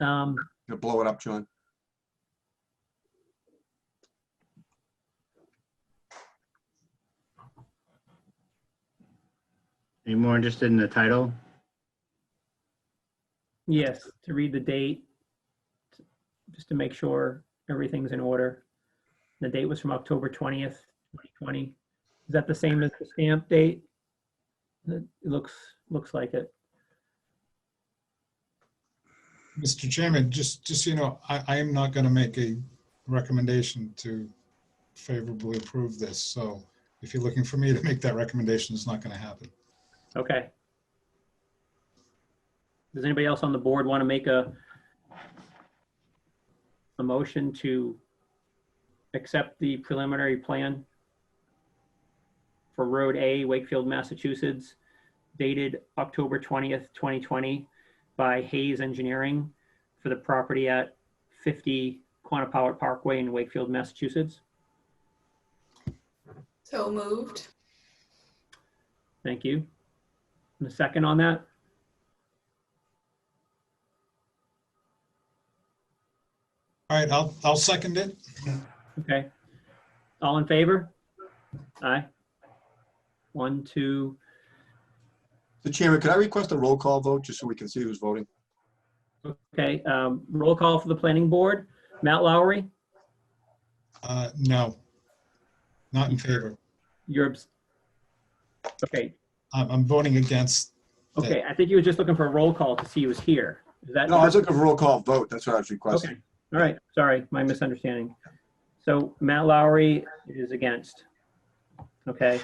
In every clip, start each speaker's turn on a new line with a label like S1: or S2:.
S1: Um,
S2: You'll blow it up, John.
S3: Any more interested in the title?
S1: yes, to read the date, just to make sure everything's in order. The date was from October 20th, 2020. Is that the same as the stamp date? It looks, looks like it.
S4: Mr. Chairman, just, just, so you know, I, I am not going to make a recommendation to favorably approve this, so if you're looking for me to make that recommendation, it's not going to happen.
S1: Okay. Does anybody else on the board want to make a a motion to accept the preliminary plan for Road A, Wakefield, Massachusetts, dated October 20th, 2020 by Hayes Engineering for the property at 50 Quantapowhat Parkway in Wakefield, Massachusetts?
S5: So moved.
S1: Thank you. And a second on that?
S4: All right, I'll, I'll second it.
S1: Okay. All in favor? Aye. One, two,
S2: The chairman, could I request a roll call vote just so we can see who's voting?
S1: okay. um, Roll call for the planning board. Matt Lowry,
S4: Uh, no. Not in favor.
S1: you're, abs- okay,
S4: I'm, I'm voting against.
S1: okay. I think he was just looking for a roll call to see he was here. Is that?
S2: No, I was looking for a roll call vote. That's what I was requesting.
S1: Okay. All right, sorry, my misunderstanding. So Matt Lowry is against. Okay.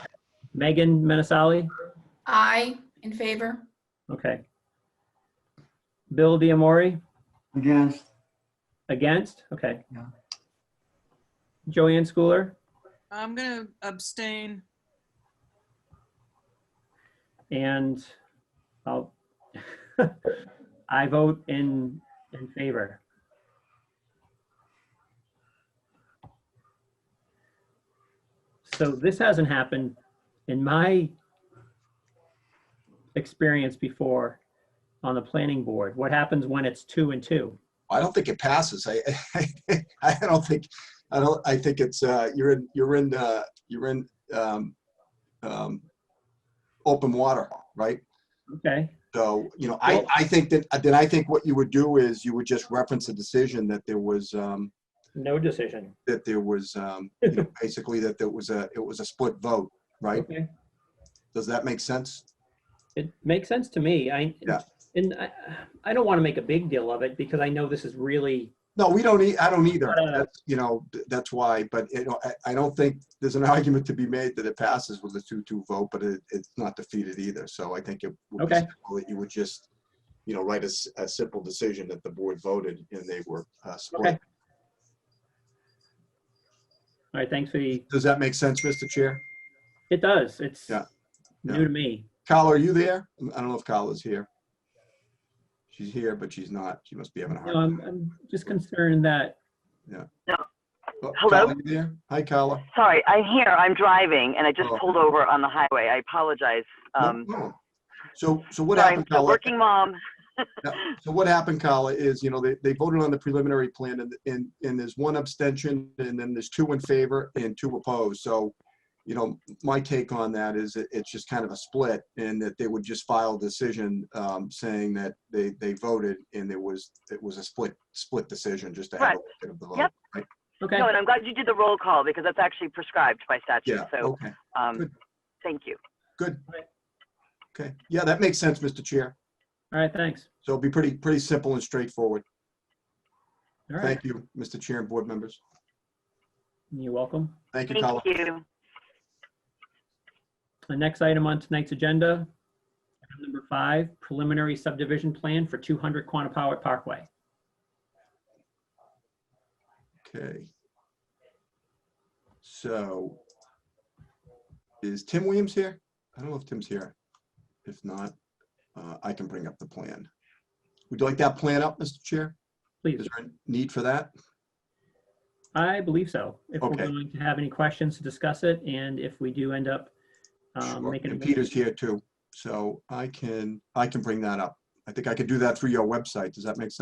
S1: Megan Menasali,
S5: Aye, in favor.
S1: okay. Bill Diamori,
S6: Against,
S1: against, okay.
S6: Yeah.
S1: Joanne Schooler?
S7: I'm gonna abstain.
S1: And I'll, I vote in, in favor. So this hasn't happened in my experience before on the planning board. What happens when it's two and two?
S2: I don't think it passes. I, I don't think, I don't, I think it's, uh, you're in, you're in, uh, you're in, um, um, open water, right?
S1: Okay,
S2: So, you know, I, I think that, uh, then I think what you would do is you would just reference a decision that there was, um,
S1: no decision.
S2: that there was, um, you know, basically that there was a, it was a split vote, right?
S1: Okay.
S2: Does that make sense?
S1: It makes sense to me. I,
S2: Yeah.
S1: and I, I don't want to make a big deal of it because I know this is really
S2: No, we don't, e- I don't either.
S1: No, no, no.
S2: That's, you know, th- that's why, but, you know, I, I don't think there's an argument to be made that it passes with a two-two vote, but it, it's not defeated either. So I think it would be
S1: Okay.
S2: simple that you would just, you know, write a, s- a simple decision that the board voted and they were uh, split.
S1: Okay. All right, thanks for the,
S2: Does that make sense, Mr. Chair?
S1: it does, it's
S2: Yeah, yeah.
S1: new to me.
S2: Kyle, are you there? Mm, I don't know if Kyle is here. She's here, but she's not. She must be having a hard
S1: No, I'm,
S2: time.
S1: I'm just concerned that,
S2: Oh,
S8: Hello?
S2: Kyle, you there? Hi, Kyle.
S8: Sorry, I'm here. I'm driving, and I just
S2: Oh.
S8: pulled over on the highway. I apologize.
S2: No,
S8: Um,
S2: no. So, so what
S8: but I'm
S2: happened,
S8: still
S2: Kyle?
S8: working mom.
S2: Yeah, So what happened, Kyle, is, you know, they, they voted on the preliminary plan and, and, and there's one abstention and then there's two in favor and two opposed. So, you know, my take on that is it, it's just kind of a split and that they would just file a decision, um, saying that they, they voted and there was, it was a split, split decision just to have a bit of the vote.
S8: Yep.
S2: right?
S1: okay,
S8: No, and I'm glad you did the roll call because that's actually prescribed by statute.
S2: Yeah,
S8: So,
S2: okay,
S8: um,
S2: good.
S8: thank you.
S2: good. Okay, yeah, that makes sense, Mr. Chair.
S1: all right, thanks.
S2: So it'll be pretty, pretty simple and straightforward.
S1: All right,
S2: Thank you, Mr. Chair and board members.
S1: you're welcome.
S2: Thank you, Kyle.
S8: Thank you.
S1: The next item on tonight's agenda, item number five, preliminary subdivision plan for 200 Quantapowhat Parkway.
S2: Okay. So is Tim Williams here? I don't know if Tim's here. If not, uh, I can bring up the plan. Would you like that plan up, Mr. Chair?
S1: Please,
S2: Is there a need for that?
S1: I believe so. If we're
S2: Okay.
S1: going to have any questions to discuss it, and if we do end up um,
S2: Sure.
S1: making.
S2: And Peter's here too, so I can, I can bring that up. I think I could do that through your website. Does that make sense?